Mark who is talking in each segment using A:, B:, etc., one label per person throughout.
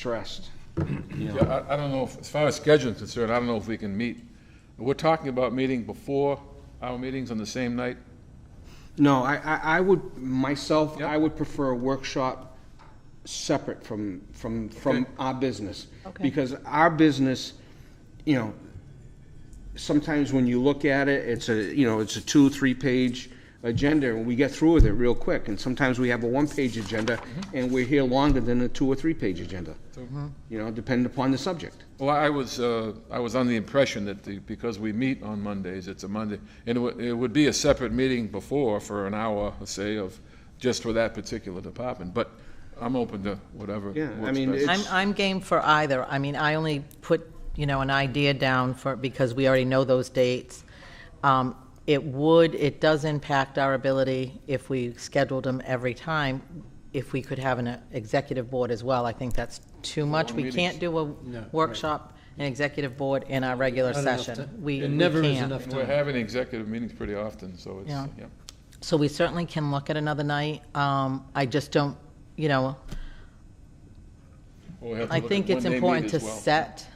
A: stressed.
B: Yeah, I, I don't know, if- as far as scheduling is concerned, I don't know if we can meet. We're talking about meeting before our meetings on the same night.
A: No, I, I, I would, myself,
B: Yep.
A: I would prefer a workshop separate from, from, from
B: Okay.
A: our business.
C: Okay.
A: Because our business, you know, sometimes when you look at it, it's a, you know, it's a two, three-page agenda, and we get through with it real quick. And sometimes we have a one-page agenda, and we're here longer than a two or three-page agenda. You know, depending upon the subject.
B: Well, I was, uh, I was under the impression that the, because we meet on Mondays, it's a Monday, and it would, it would be a separate meeting before for an hour, let's say, of, just for that particular department, but I'm open to whatever.
A: Yeah, I
B: works
A: mean,
B: best.
A: it-
C: I'm,
A: It's-
C: I'm game for either. I mean, I only put, you know, an idea down for, because we already know those dates. Um, It would, it does impact our ability if we scheduled them every time, if we could have an uh, executive board as well. I think that's too much. We
B: meetings.
C: can't do a workshop, an executive board, in our regular
D: Not enough
C: session.
D: ti-
C: We
D: It
C: we
D: never is
C: can't.
D: enough
B: We're
D: time.
B: having executive meetings pretty often, so it's,
C: Yeah.
B: yeah.
C: So we certainly can look at another night. Um, I just don't, you know,
B: Well, we have to
C: I
B: look at
C: think
B: when
C: it's
B: they meet
C: important to
B: as well. Mm-hmm.
C: set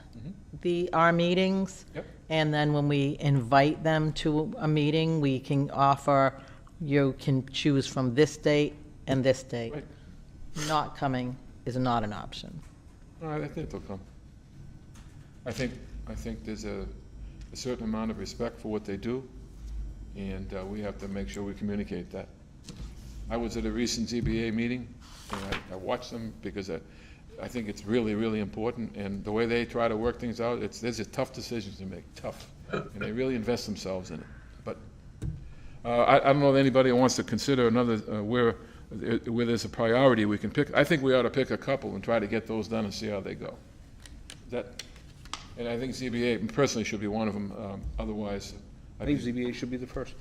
C: the, our meetings.
B: Yep.
C: And then when we invite them to a meeting, we can offer, you can choose from this date and this date.
B: Right.
C: Not coming is not an option.
B: All right, I think they'll come. I think, I think there's a, a certain amount of respect for what they do, and uh, we have to make sure we communicate that. I was at a recent ZBA meeting, and I, I watched them because I, I think it's really, really important, and the way they try to work things out, it's, there's a tough decisions to make, tough, and they really invest themselves in it. But uh, I, I don't know if anybody wants to consider another, uh, where, where there's a priority we can pick. I think we ought to pick a couple and try to get those done and see how they go. That, and I think ZBA personally should be one of them, um, otherwise,
A: I
B: I
A: think
B: think,
A: ZBA should be the first.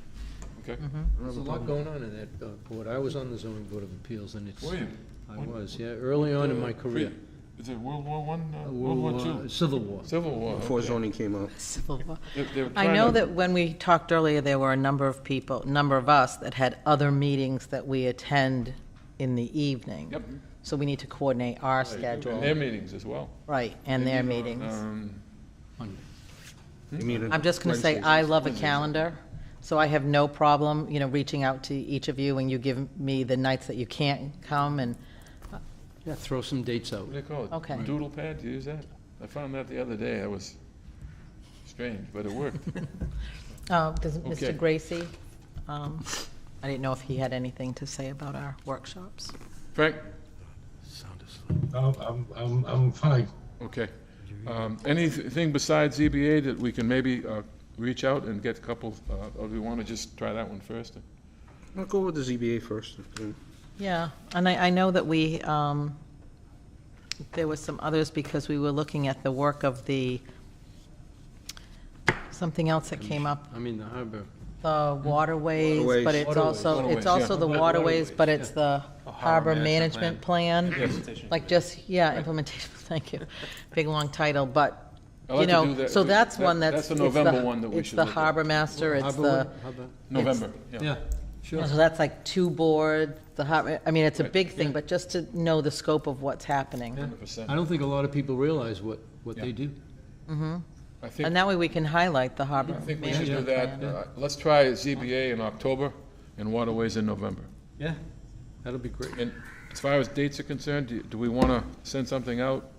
B: okay?
D: There's a lot going on in that uh, board. I was on the zoning board of appeals and it's.
B: Were you?
D: I was, yeah, early on in my career.
B: Is it World War One, uh,
D: Uh,
B: World War Two?
D: Civil War.
B: Civil War.
A: Before
B: okay.
A: zoning came out.
C: Civil War.
B: They- they were
C: I
B: trying
C: know
B: to-
C: that when we talked earlier, there were a number of people, number of us that had other meetings that we attend in the evening.
B: Yep.
C: So we need to coordinate our
B: And
C: schedule,
B: their meetings as well.
C: right, and
B: They
C: their
B: meet on,
C: meetings.
B: um,
D: Monday.
C: I'm just going to say, I love a calendar, so I have no problem, you know, reaching out to each of you, and you give me the nights that you can't come, and,
D: Yeah, throw some dates out.
B: What do they call it?
C: Okay.
B: Doodle pad, do you use that? I found that the other day, that was strange, but it worked.
C: uh, does
B: Okay.
C: Mr. Gracie, um, I didn't know if he had anything to say about our workshops.
B: Frank?
E: No, I'm, I'm, I'm fine.
B: Okay. Um, Anything besides ZBA that we can maybe uh, reach out and get a couple, uh, or do we want to just try that one first?
A: I'll go with the ZBA first. then.
C: Yeah, and I, I know that we, um, there was some others because we were looking at the work of the, something else that came up,
D: I mean, the harbor.
C: the waterways, but it's
D: Waterways.
C: also,
B: Waterways,
C: it's also
B: yeah.
C: the waterways, but it's the
F: harbor
C: harbor management
F: management
C: plan. Like just, yeah, implementation, thank you. Big, long title, but,
B: I
C: you
B: like to do
C: know,
B: that-
C: so that's one
B: that-
C: that's.
B: that's a
C: it's the-
B: November one that we should
C: It's
B: look
C: the
B: at.
C: harbor master, it's
D: Harbor
C: the,
D: one? Harbor-
B: November, yeah.
D: Yeah, sure.
C: so that's like two board, the harbor, I mean, it's a big thing, but just to know the scope of what's happening.
B: 100%.
D: I don't think a lot of people realize what, what they do.
B: I think,
C: And that way we can highlight the harbor
B: I think we should do
C: management
B: that.
C: plan.
B: Uh, Let's try ZBA in October and Waterways in November.
D: Yeah, that'll be great.
B: And as far as dates are concerned, do- do we want to send something out,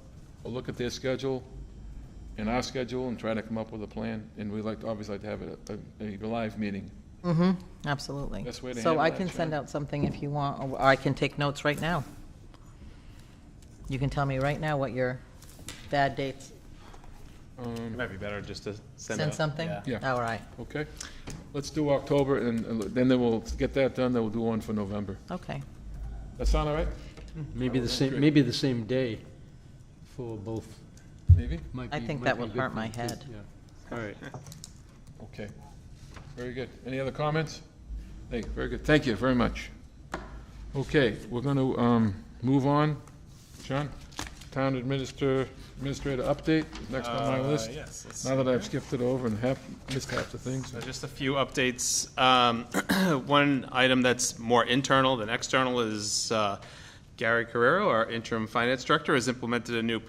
B: or look at their schedule and our schedule and try to come up with a plan? And we'd like, to obviously like to have a- a, a live meeting.
C: Mm-hmm, Absolutely.
B: Best way to
C: So
B: handle
C: I
B: that,
C: can
B: Sharon.
C: send out something if you want, or I can take notes right now. You can tell me right now what your bad dates,
F: It might be better just to send,
C: send
F: out-
C: something?
F: yeah.
B: Yeah.
C: All right,
B: Okay, let's do October, and and then then we'll get that done, then we'll do one for November.
C: okay.
B: That sound all right?
D: Maybe the
B: great.
D: same, maybe the same day for both.
B: Maybe?
D: Might
C: I
D: be-
C: think
D: might
C: that
D: be a
C: would
D: good
C: hurt my
D: thing, too.
C: head.
D: Yeah.
A: All right.
B: Okay, very good. Any other comments? Hey, very good, thank you very much. Okay, we're going to move on. Sean, Town Administrator, Administrator update, next on my
F: Uh,
B: list.
F: yes, let's
B: Now that I've skipped it over and half, missed half the things.
F: So just a few updates. Um, One item that's more internal than external is uh, Gary Carrero, our interim finance director, has implemented a new